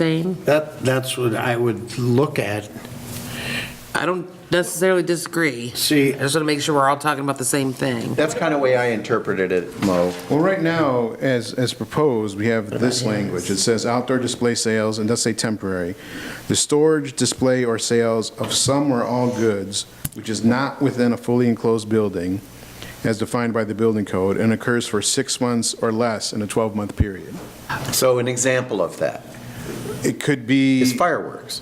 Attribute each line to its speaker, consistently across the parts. Speaker 1: saying.
Speaker 2: That, that's what I would look at.
Speaker 1: I don't necessarily disagree.
Speaker 2: See-
Speaker 1: I just want to make sure we're all talking about the same thing.
Speaker 3: That's kind of way I interpreted it, Mo.
Speaker 4: Well, right now, as, as proposed, we have this language. It says outdoor display sales, and does say temporary, the storage, display, or sales of some or all goods which is not within a fully enclosed building as defined by the building code and occurs for six months or less in a 12-month period.
Speaker 3: So an example of that
Speaker 4: It could
Speaker 3: is
Speaker 4: be,
Speaker 3: fireworks,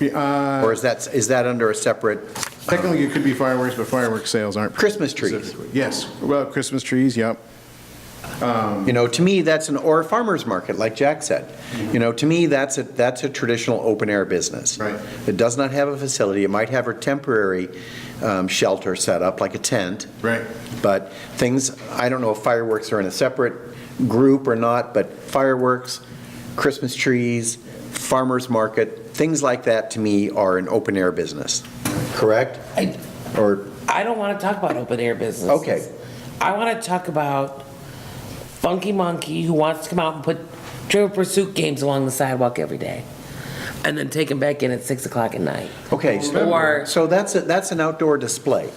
Speaker 4: uh,
Speaker 3: or is that, is that under a separate
Speaker 4: technically, it could be fireworks, but fireworks sales aren't.
Speaker 3: Christmas trees?
Speaker 4: Yes, well, Christmas trees, yep.
Speaker 3: You know, to me, that's an, or a farmer's market, like Jack said. You know, to me, that's a, that's a traditional open-air business.
Speaker 4: Right.
Speaker 3: It does not have a facility, it might have a temporary um, shelter set up, like a tent.
Speaker 4: Right.
Speaker 3: But things, I don't know if fireworks are in a separate group or not, but fireworks, Christmas trees, farmer's market, things like that, to me, are an open-air business, correct?
Speaker 1: I-
Speaker 3: Or,
Speaker 1: I don't want to talk about open air business.
Speaker 3: Okay.
Speaker 1: I want to talk about Funky Monkey who wants to come out and put trivial pursuit games along the sidewalk every day and then take them back in at six o'clock at night.
Speaker 3: okay,
Speaker 1: Or-
Speaker 3: so so that's, a- that's an outdoor display.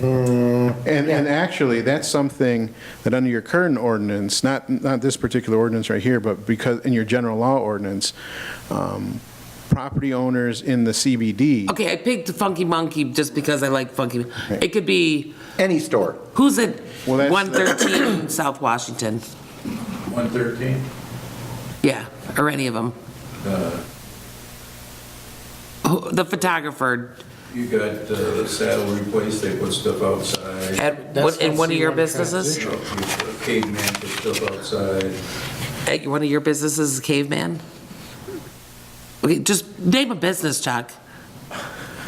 Speaker 4: And, and actually, that's something that under your current ordinance, not, not this particular ordinance right here, but because, in your general law ordinance, um, property owners in the CBD,
Speaker 1: Okay, I picked Funky Monkey just because I like Funky. It could be,
Speaker 3: Any store.
Speaker 1: who's at
Speaker 4: Well, that's-
Speaker 1: 113 South Washington?
Speaker 5: 113?
Speaker 1: Yeah, or any of them. The photographer
Speaker 5: You got uh, the saddlery place, they put stuff outside.
Speaker 1: at, what- in one of your businesses?
Speaker 5: You know, you- Caveman put stuff outside.
Speaker 1: At one of your businesses is Caveman? Okay, just name a business, Chuck.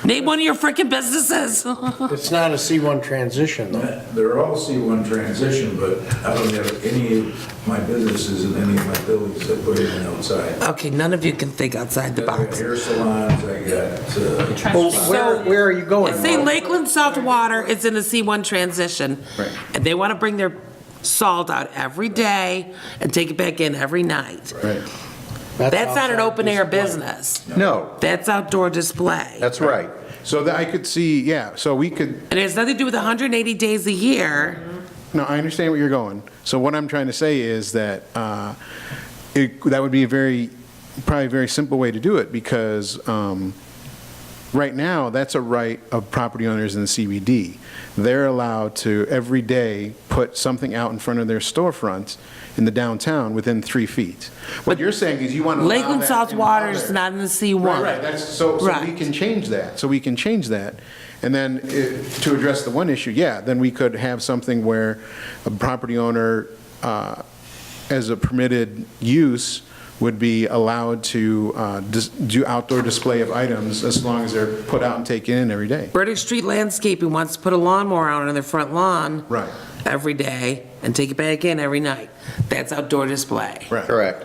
Speaker 1: Name one of your freaking businesses.
Speaker 2: It's not a C1 transition, though.
Speaker 5: They're all C1 transition, but I don't have any of my businesses in any of my buildings that put anything outside.
Speaker 1: Okay, none of you can think outside the
Speaker 5: I got
Speaker 1: box.
Speaker 5: hair salons, I got, uh,
Speaker 3: Well, where, where are you going?
Speaker 1: Say
Speaker 3: Mo?
Speaker 1: Lakeland Salt Water is in a C1 transition.
Speaker 3: Right.
Speaker 1: And they want to bring their salt out every day and take it back in every night. That's not an
Speaker 2: outside
Speaker 1: open air
Speaker 2: display.
Speaker 1: business.
Speaker 3: No,
Speaker 1: That's outdoor display.
Speaker 3: that's right.
Speaker 4: so that I could see, yeah, so we could,
Speaker 1: And it has nothing to do with 180 days a year.
Speaker 4: no, I understand where you're going. So what I'm trying to say is that, uh, it, that would be a very, probably a very simple way to do it, because, um, right now, that's a right of property owners in the CBD. They're allowed to, every day, put something out in front of their storefront in the downtown within three feet. What you're saying is you want to allow
Speaker 1: Lakeland
Speaker 4: that
Speaker 1: South
Speaker 4: in
Speaker 1: Water is
Speaker 4: other-
Speaker 1: not in the C1.
Speaker 4: Right, right, that's, so, so we
Speaker 1: Right.
Speaker 4: can change that, so we can change that. And then, eh, to address the one issue, yeah, then we could have something where a property owner, uh, as a permitted use, would be allowed to uh, dis- do outdoor display of items as long as they're put out and taken in every day.
Speaker 1: British Street Landscaping wants to put a lawnmower out on their front lawn.
Speaker 4: Right.
Speaker 1: Every day and take it back in every night. That's outdoor display.
Speaker 4: Right.
Speaker 3: Correct.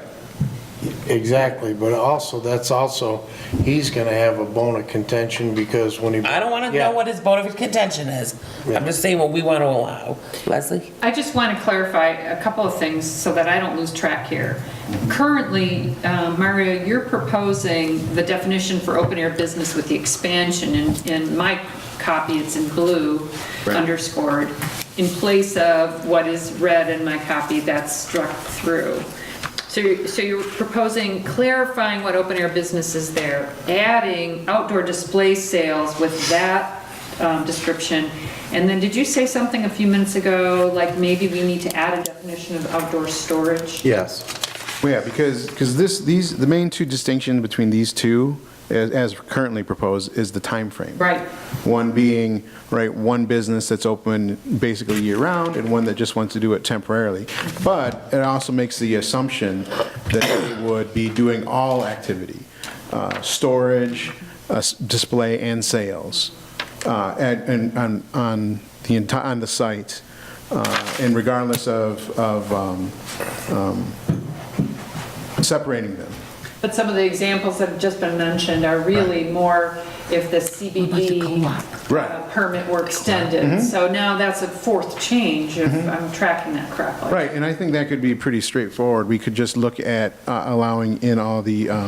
Speaker 2: Exactly, but also, that's also, he's going to have a bone of contention because when he.
Speaker 1: I don't want to
Speaker 2: Yeah.
Speaker 1: know what his vote of contention is.
Speaker 2: Yeah.
Speaker 1: I'm just saying what we want to allow. Leslie?
Speaker 6: I just want to clarify a couple of things so that I don't lose track here. Currently, uh, Mario, you're proposing the definition for open-air business with the expansion, and in my copy, it's in blue underscored, in place of what is red in my copy that's struck through. So you're, so you're proposing clarifying what open-air business is there, adding outdoor display sales with that um, description. And then, did you say something a few minutes ago, like maybe we need to add a definition of outdoor storage?
Speaker 3: Yes.
Speaker 4: Well, yeah, because, because this, these, the main two distinctions between these two, as, as currently proposed, is the time frame.
Speaker 6: Right.
Speaker 4: One being, right, one business that's open basically year-round, and one that just wants to do it temporarily. But it also makes the assumption that they would be doing all activity, uh, storage, uh, s- display, and sales, uh, and, and on, on the entire, on the site, uh, and regardless of, of um, um, separating them.
Speaker 6: But some of the examples that have just been mentioned are really more if the CBD
Speaker 4: Right.
Speaker 6: uh, permit were extended. So now that's a fourth change, if I'm tracking that correctly.
Speaker 4: Right, and I think that could be pretty straightforward. We could just look at uh, allowing in all the um,